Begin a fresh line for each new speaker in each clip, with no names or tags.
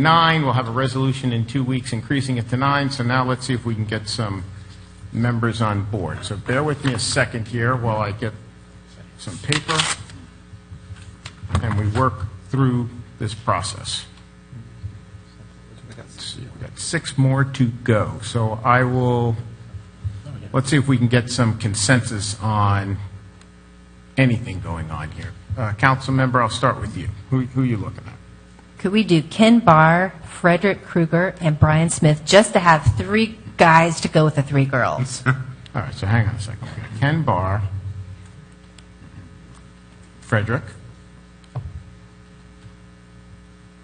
nine. We'll have a resolution in two weeks increasing it to nine. So now let's see if we can get some members on board. So bear with me a second here while I get some paper and we work through this process. Let's see, We've got six more to go. So I will, let's see if we can get some consensus on anything going on here. Uh, Council member, I'll start with you. Who, who are you looking at?
Could we do Ken Barr, Frederick Krueger, and Brian Smith just to have three guys to go with the three girls?
All right, so hang on a second. We've got Ken Barr, Frederick,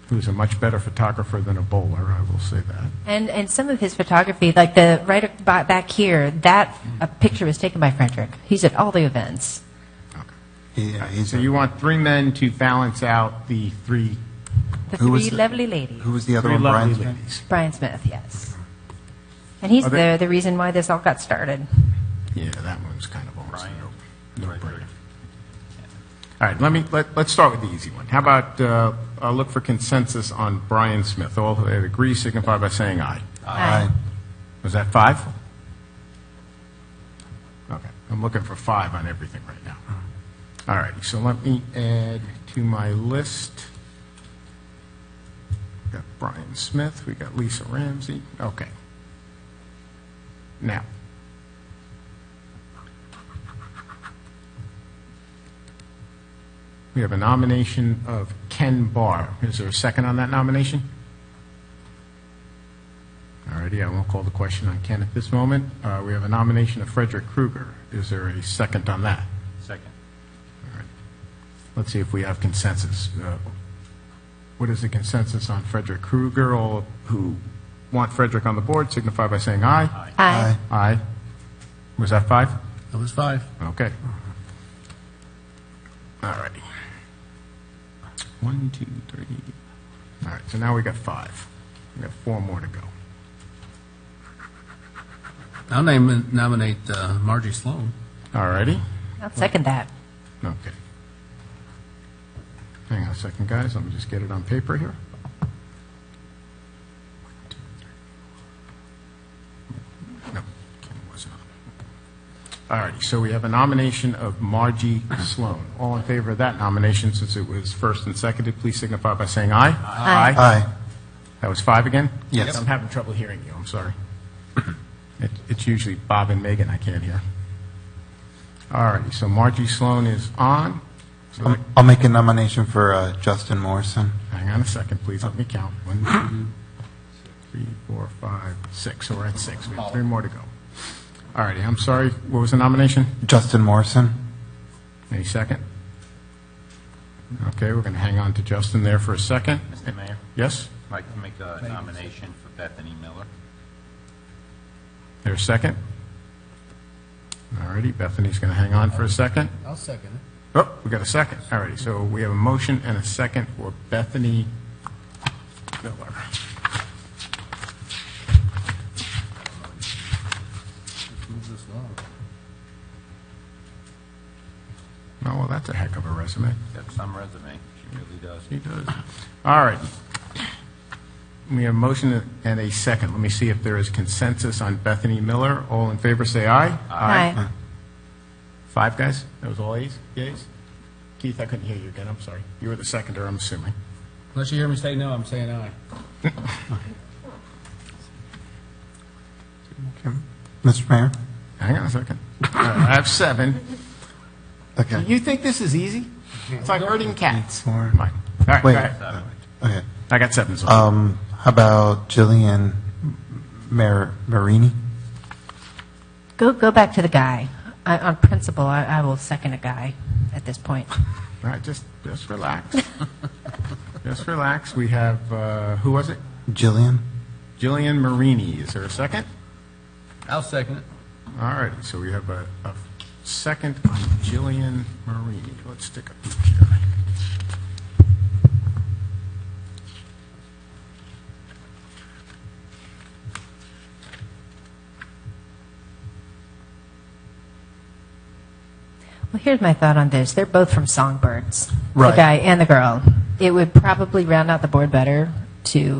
who's a much better photographer than a bowler, I will say that.
and and some of his photography, like the right ab- ba- back here, that a picture was taken by Frederick. He's at all the events.
Yeah, he's,
So you want three men to balance out the three,
The
Who was
three
the-
lovely ladies.
who was the other
three
one,
lovely
Brian?
ladies.
Brian Smith, yes. And he's
Are they-
the, the reason why this all got started.
Yeah, that one's kind of almost a no- no-brainer. All right, let me, let, let's start with the easy one. How about, uh, I'll look for consensus on Brian Smith. All who agree signify by saying aye.
Aye.
Was that five? Okay, I'm looking for five on everything right now. All righty, so let me add to my list. We Got Brian Smith, we got Lisa Ramsey, okay. Now. We have a nomination of Ken Barr. Is there a second on that nomination? Alrighty, I won't call the question on Ken at this moment. Uh, We have a nomination of Frederick Krueger. Is there a second on that?
Second.
Let's see if we have consensus. Uh, What is the consensus on Frederick Krueger? All who want Frederick on the board signify by saying aye.
Aye.
Aye. Was that five?
That was five.
Okay. Alrighty. One, two, three. All right, so now we got five. We got four more to go.
I'll name, nominate uh, Margie Sloan.
Alrighty.
I'll second that.
Okay. Hang on a second, guys, let me just get it on paper here. No, Ken wasn't on. All righty, so we have a nomination of Margie Sloan. All in favor of that nomination, since it was first and seconded, please signify by saying aye.
Aye.
Aye.
That was five again?
Yes.
I'm having trouble hearing you, I'm sorry. It- It's usually Bob and Megan I can't hear. All righty, so Margie Sloan is on. So that-
I'll- I'll make a nomination for uh, Justin Morrison.
Hang on a second, please, let me count. One, two, three, four, five, six, so we're at six, we have three more to go. All righty, I'm sorry, what was the nomination?
Justin Morrison?
Any second? Okay, we're going to hang on to Justin there for a second.
Mr. Mayor,
Yes,
I'd like to make a nomination for Bethany Miller.
there's second. All righty, Bethany's going to hang on for a second.
I'll second it.
Oh, we got a second. All righty, so we have a motion and a second for Bethany Miller.
Move this along.
Oh, well, that's a heck of a resume.
Got some resume. She really does.
He does. All right. We have a motion and a second. Let me see if there is consensus on Bethany Miller. All in favor, say aye.
Aye.
Five guys? That was all ayes? Yeas? Keith, I couldn't hear you again, I'm sorry. You were the seconder, I'm assuming.
Unless you hear me say no, I'm saying aye.
Mr. Mayor?
Hang on a second. All right, I have seven.
Okay.
You think this is easy? It's like herding cats.
Four.
Come on. All right, go
Wait.
ahead.
Okay.
I got seven, so
Um, how about Jillian Mar- Marini?
Go, go back to the guy. I, on principle, I, I will second a guy at this point.
All right, just, just relax. Just relax. We have, uh, who was it?
Jillian?
Jillian Marini. Is there a second?
I'll second it.
All right, so we have a, a second on Jillian Marini. Let's stick a peek here.
Well, here's my thought on this. They're both from Songbirds,
Right.
the guy and the girl. It would probably round out the board better to